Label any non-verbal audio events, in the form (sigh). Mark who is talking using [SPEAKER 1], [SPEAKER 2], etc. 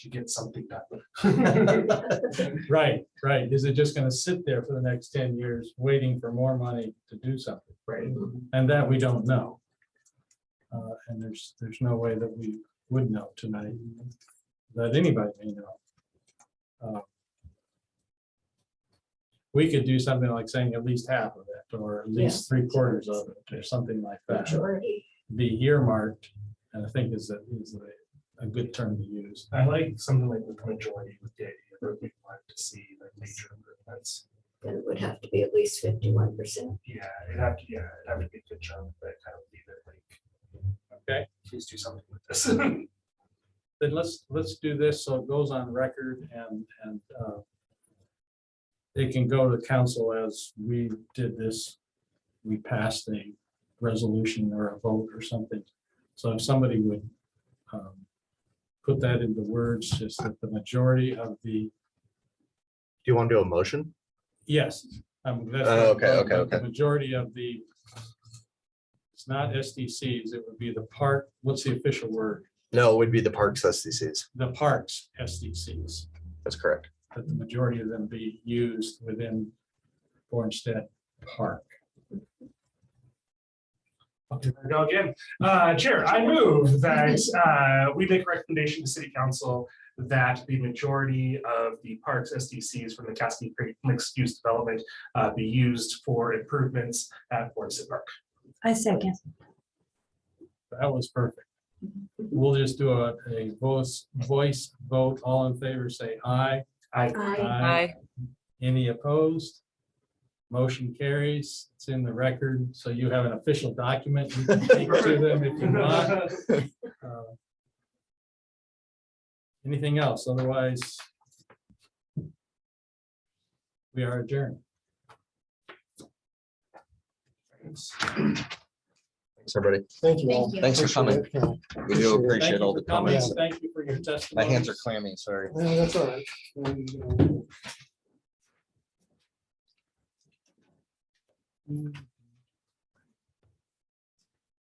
[SPEAKER 1] to get something done.
[SPEAKER 2] Right, right. Is it just gonna sit there for the next ten years, waiting for more money to do something?
[SPEAKER 1] Right,
[SPEAKER 2] And that we don't know. Uh, and there's, there's no way that we would know tonight, that anybody may know. Uh, We could do something like saying at least half of it, or at least three quarters of it, or something like that.
[SPEAKER 3] Majority.
[SPEAKER 2] Be earmarked, and I think is a, is a, a good term to use.
[SPEAKER 1] I like something like the majority with the idea that we want to see the major improvements.
[SPEAKER 3] Then it would have to be at least fifty-one percent.
[SPEAKER 1] Yeah, it'd have to, yeah, it'd have to be a good chunk, but I would leave it like.
[SPEAKER 2] Okay.
[SPEAKER 1] Please do something with this. (laughs)
[SPEAKER 2] then let's, let's do this so it goes on record and, and uh, it can go to council as we did this, we passed a resolution or a vote or something. So if somebody would um, put that into words, just that the majority of the,
[SPEAKER 4] Do you want to do a motion?
[SPEAKER 2] yes. um, that's
[SPEAKER 4] Oh,
[SPEAKER 2] not-
[SPEAKER 4] okay, okay,
[SPEAKER 2] but the
[SPEAKER 4] okay.
[SPEAKER 2] Majority of the, it's not SDCs, it would be the park, what's the official word?
[SPEAKER 4] No, it would be the parks SDCs.
[SPEAKER 2] The parks SDCs.
[SPEAKER 4] That's correct.
[SPEAKER 2] that the majority of them be used within Bornstedt Park.
[SPEAKER 1] Okay, there we go again. Uh, Chair, I move that uh, we make a recommendation to City Council that the majority of the parks SDCs from the Cassidy Creek mixed-use development uh, be used for improvements at Forest Park.
[SPEAKER 5] I second.
[SPEAKER 2] That was perfect. We'll just do a, a voice, voice vote. All in favor, say aye.
[SPEAKER 1] I,
[SPEAKER 3] I
[SPEAKER 2] Any opposed? Motion carries. It's in the record, so you have an official document. You can take to them if you want. Uh, Anything else? Otherwise, we are adjourned.
[SPEAKER 4] Thanks, everybody.
[SPEAKER 6] Thank you all.
[SPEAKER 3] Thank you.
[SPEAKER 4] Thanks for coming.
[SPEAKER 6] Appreciate it.
[SPEAKER 4] We do
[SPEAKER 6] Appreciate
[SPEAKER 2] Thank
[SPEAKER 4] appreciate
[SPEAKER 6] it.
[SPEAKER 2] you
[SPEAKER 4] all
[SPEAKER 2] for
[SPEAKER 4] the
[SPEAKER 2] coming.
[SPEAKER 4] comments.
[SPEAKER 2] Thank you for your testimony.
[SPEAKER 4] My hands are clammy, sorry.
[SPEAKER 6] Yeah, that's all right. And, uh,